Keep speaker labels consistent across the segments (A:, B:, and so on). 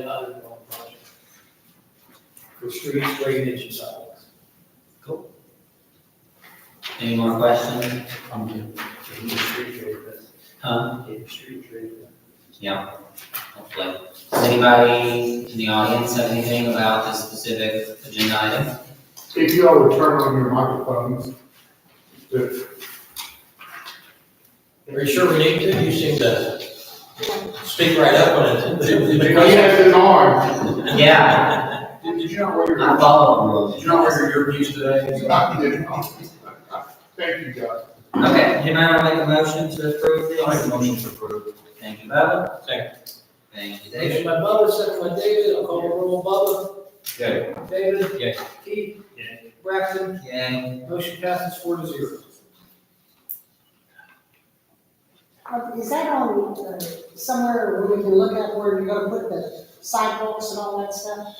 A: and other development projects. For streets, drainage, and sidewalks.
B: Any more questions? Huh? Yeah, hopefully. Does anybody in the audience have anything about this specific agenda item?
C: If you all would turn on your microphones, the-
D: Are you sure we need to? You seem to speak right up on it. Did- did
C: the
D: you-
C: yes is on.
B: Yeah,
C: Did did you not wear
B: I
C: your,
B: follow the rules.
D: Did you not wear your earpiece today?
C: I did not. Thank you, guys.
B: Okay, do you mind if I make a motion to approve this?
D: I make a motion to approve.
B: Thank you, Bubba.
D: Second.
B: Thank you,
A: Motion
B: David.
A: by Bubba, second by David, I'll call the roll, Bubba.
D: Okay.
A: David.
D: Yes.
A: Keith. Braxton.
B: Yay.
A: Motion passes four to zero.
E: Uh, Is that on, uh, somewhere where we can look at where you're gonna put the sidewalks and all that stuff?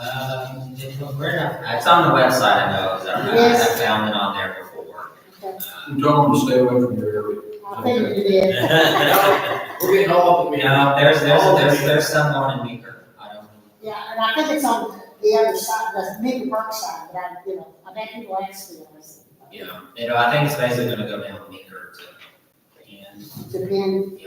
B: Um, it was- where did I- it's on the website, I know, is that right?
E: Yes.
B: I found it on there before.
E: Okay.
B: Uh,
D: You told them to stay away from your area.
E: I think you did.
A: We're getting all of them.
B: No, there's, there's, there's, there's someone in Meeker, I don't know.
E: Yeah, and I think it's on the other side, the Meeker Park side, but I, you know, I bet people asked me, I was,
B: You know, it, I think it's basically gonna go down Meeker to, and
E: depend,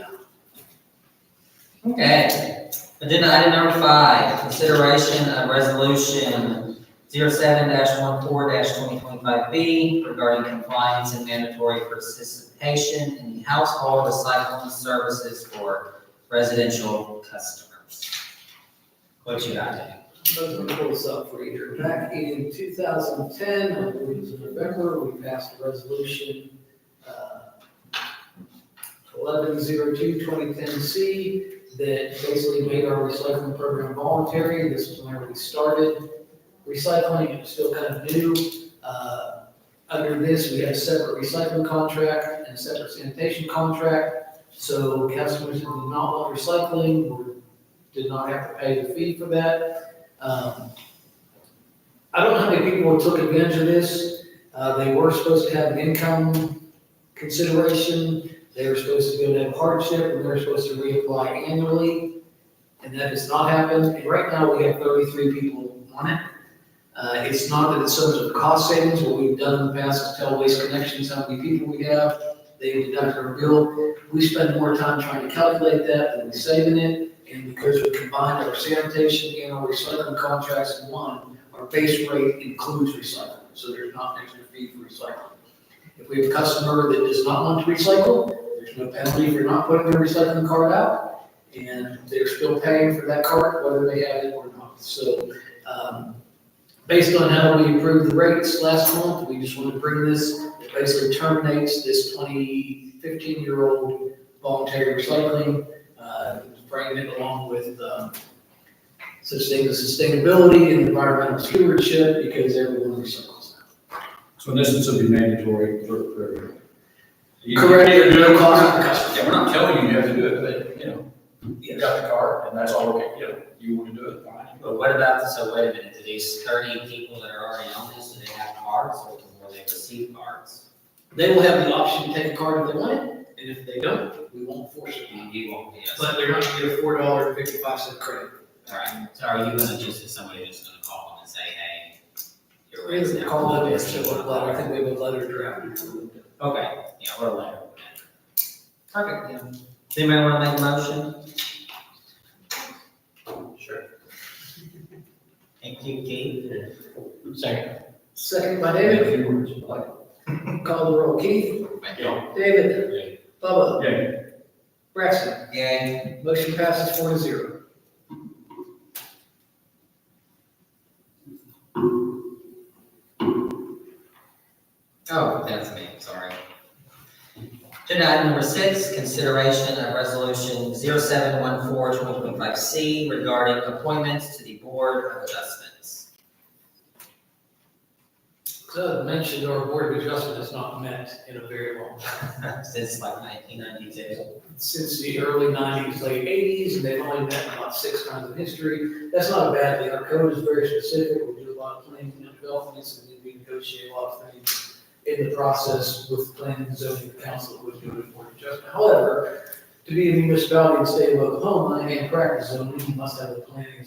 B: Okay, agenda item number five, consideration of resolution zero seven dash one four dash twenty twenty-five B regarding compliance and mandatory participation in the household recycling services for residential customers. What you got, Dave?
A: Let me pull this up for you. Back in 2010, I believe it was in November, we passed a resolution, uh, 1102-2010C, that basically made our recycling program voluntary. This is whenever we started recycling, it was still kind of new. Uh, Under this, we had a separate recycling contract and a separate sanitation contract. So customers who did not want recycling were- did not have to pay the fee for that. Um, I don't know how many people took advantage of this. Uh, They were supposed to have an income consideration. They were supposed to be able to have hardship, and they were supposed to reapply annually. And that has not happened. And right now, we have thirty-three people on it. Uh, It's not that it's so much of a cost savings. What we've done in the past is tell Waste Connections how many people we have. They deduct our bill. We spend more time trying to calculate that than we saving it. And because we combined our sanitation and our recycling contracts in one, our base rate includes recycling, so there's not an extra fee for recycling. If we have a customer that does not want to recycle, there's no penalty for not putting their recycling card out, and they're still paying for that card whether they have it or not. So, um, based on how we approved the rates last month, we just want to bring this, it basically terminates this 2015 fifteen-year-old voluntary recycling uh, bringing it along with um, such things as sustainability and environmental stewardship, because everyone recycles now.
F: So in essence, it'll be mandatory for, for.
A: Correct, at no cost to the customer.
D: Yeah, we're not telling you you have to do it, but, you know, you
A: Yes.
D: got the card, and that's all, we can- you know, you want to do it, fine.
B: But what about, so wait a minute, do these thirty people that are already on this, do they have cards or will they receive cards?
A: They will have the option to take a card if they want it, and if they don't, we won't force it.
B: You you won't be, yes.
A: But they're not gonna get a four dollar fifty-five cent credit.
B: Alright, so are you gonna just, is somebody just gonna call them and say, hey, your rate's
A: It's
B: now.
A: called a
B: this, you
A: letter,
B: want
A: I
B: to-
A: think we have a letter draft.
B: Okay, yeah, we're later. Perfect, yeah. Does anybody wanna make a motion?
D: Sure.
B: Thank you, Keith.
D: Second.
A: Second by David, call the roll, Keith, David,
D: Yeah.
A: Bubba,
F: Yeah,
A: Braxton,
B: Yay.
A: motion passes four to zero.
B: Oh, that's me, sorry. Agenda item number six, consideration of resolution 0714-2025 C regarding appointments to the Board of Adjustments.
A: So mentioned our board of adjustment has not met in a very long, time
B: Since like nineteen ninety-two.
A: since the early nineties, late eighties, and they've only met about six times in history. That's not a bad thing. Our code is very specific. We do a lot of planning and developments and we negotiate a lot of things in the process with planning and zoning council, which do a board of adjustment. However, To be a municipality in the state of Oklahoma and practice zoning, you must have a planning and